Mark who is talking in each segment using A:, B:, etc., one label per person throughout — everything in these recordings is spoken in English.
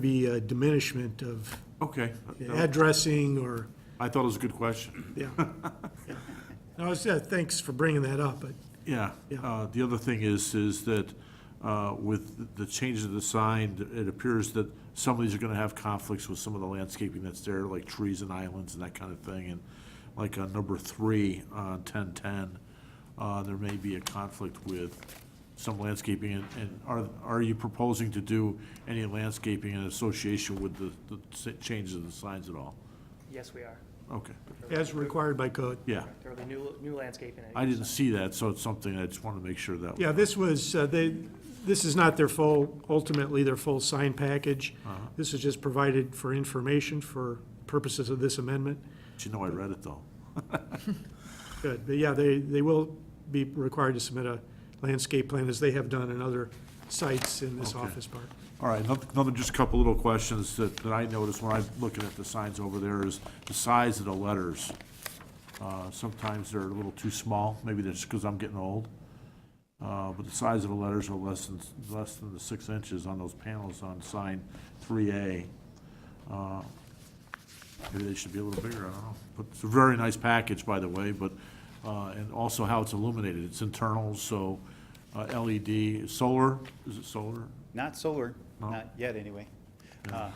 A: be a diminishment of
B: Okay.
A: addressing or,
B: I thought it was a good question.
A: yeah. No, I said, thanks for bringing that up, but,
B: Yeah.
A: Yeah.
B: Uh, The other thing is, is that uh, with the change of the sign, it appears that some of these are going to have conflicts with some of the landscaping that's there, like trees and islands and that kind of thing. And like on number three, on 1010, uh, there may be a conflict with some landscaping. And- And are, are you proposing to do any landscaping in association with the, the s- changes of the signs at all?
C: Yes, we are.
B: Okay,
A: as required by code.
B: yeah.
C: There'll be new, new landscaping. at
B: I
C: each
B: didn't see that, so it's something I just want to make sure that.
A: Yeah, this was, uh, they, this is not their full, ultimately their full sign package.
B: Uh-huh.
A: This is just provided for information for purposes of this amendment.
B: But You know, I read it though.
A: Good, but yeah, they, they will be required to submit a landscape plan as they have done in other sites in this
B: Okay.
A: office park.
B: All right, another, another- just a couple little questions that, that I noticed when I'm looking at the signs over there is the size of the letters. Uh, sometimes they're a little too small, maybe that's because I'm getting old. Uh, but the size of the letters are less than, less than the six inches on those panels on sign three A. Uh, Maybe they should be a little bigger, I don't know. But it's a very nice package, by the way, but, uh, and also how it's illuminated. It's internal, so uh, LED, solar, is it solar?
D: Not solar,
B: No.
D: not yet, anyway. Uh,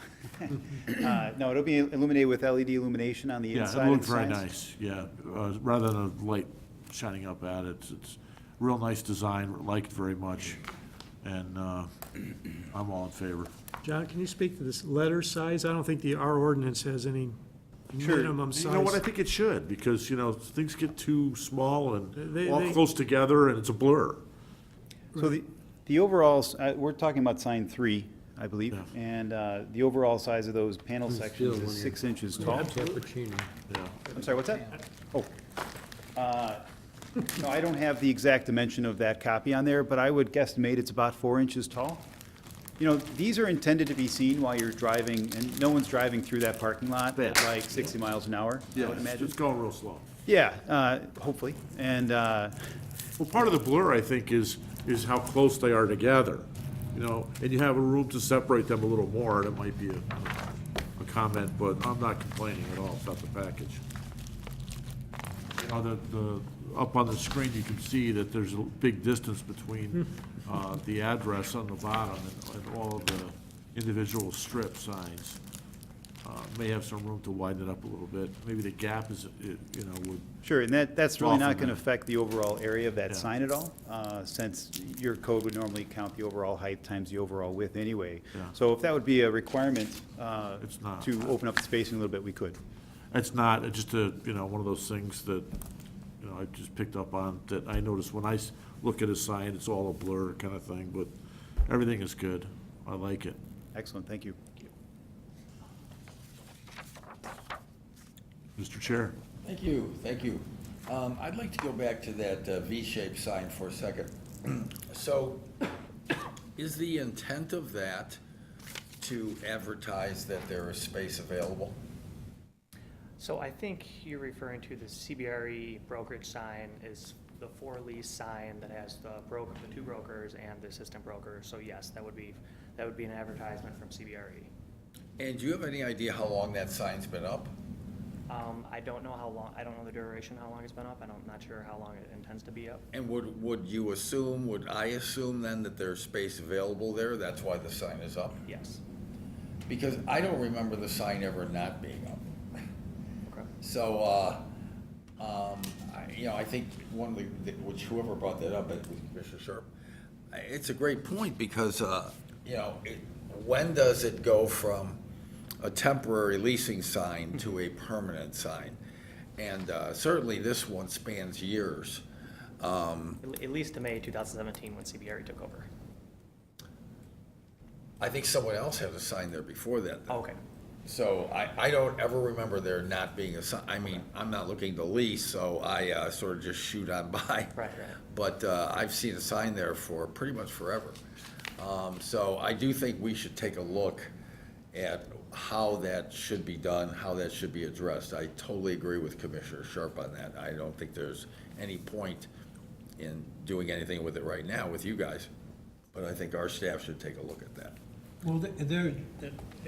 D: uh, No, it'll be illuminated with LED illumination on the
B: Yeah,
D: inside
B: it
D: of
B: looked
D: the
B: very
D: signs.
B: nice, yeah. Uh, Rather than a light shining up at it, it's real nice design, liked very much, and uh, I'm all in favor.
A: John, can you speak to this letter size? I don't think the, our ordinance has any
D: Sure.
A: minimum size.
B: You know what, I think it should, because, you know, things get too small and
A: They-
B: all
A: they-
B: close together, and it's a blur.
D: So the, the overall, s- uh, we're talking about sign three, I believe,
B: Yeah.
D: and uh, the overall size of those panel sections is six inches tall.
E: Cappuccino.
B: Yeah,
D: I'm sorry, what's that? Oh. Uh, No, I don't have the exact dimension of that copy on there, but I would guesstimate it's about four inches tall. You know, these are intended to be seen while you're driving, and no one's driving through that parking lot at like 60 miles an hour, I
B: Yeah,
D: would
B: it's
D: imagine.
B: it's going real slow.
D: Yeah, uh, hopefully. And, uh,
B: Well, part of the blur, I think, is, is how close they are together, you know, and you have a room to separate them a little more, that might be a, a comment, but I'm not complaining at all about the package. You know, the, the, up on the screen, you can see that there's a big distance between, uh, the address on the bottom and, and all of the individual strip signs. Uh, may have some room to widen it up a little bit, maybe the gap is, it- you know, would,
D: sure, and that, that's really
B: Off
D: not
B: of
D: going to
B: that.
D: affect the overall area of that
B: Yeah.
D: sign at all, uh, since your code would normally count the overall height times the overall width anyway.
B: Yeah.
D: So if that would be a requirement uh,
B: It's not.
D: to open up the spacing a little bit, we could.
B: It's not, it's just a, you know, one of those things that, you know, I just picked up on, that I noticed when I s- look at a sign, it's all a blur kind of thing, but everything is good. I like it.
D: Excellent, thank you.
B: Mr. Chair?
E: Thank you, thank you. Um, I'd like to go back to that uh, V-shaped sign for a second. So, is the intent of that to advertise that there is space available?
C: sign. So I think you're referring to the CBRE E brokerage sign is the for lease sign that has the broker, the two brokers and the assistant broker. So yes, that would be, that would be an advertisement from CBRE.
E: And do you have any idea how long that sign's been up?
C: Um, I don't know how long, I don't know the duration, how long it's been up. and I'm not sure how long it intends to be up.
E: And would, would you assume, would I assume then that there's space available there? That's why the sign is up?
C: Yes.
E: Because I don't remember the sign ever not being up.
C: Okay.
E: So, uh, um, I, you know, I think one of the, the- which whoever brought that up, it was Commissioner Sharp, I- it's a great point because, uh, you know, it, when does it go from a temporary leasing sign to a permanent sign? And, uh, certainly this one spans years. Um,
C: At- At least to May 2017 when CBRE E took over.
E: I think someone else had a sign there before that.
C: Okay.
E: So I, I don't ever remember there not being a sign, I mean, I'm not looking to lease, so I uh, sort of just shoot on by.
C: right.
E: But uh, I've seen a sign there for pretty much forever. Um, So I do think we should take a look at how that should be done, how that should be addressed. I totally agree with Commissioner Sharp on that. I don't think there's any point in doing anything with it right now with you guys, but I think our staff should take a look at that.
F: Well, th- there,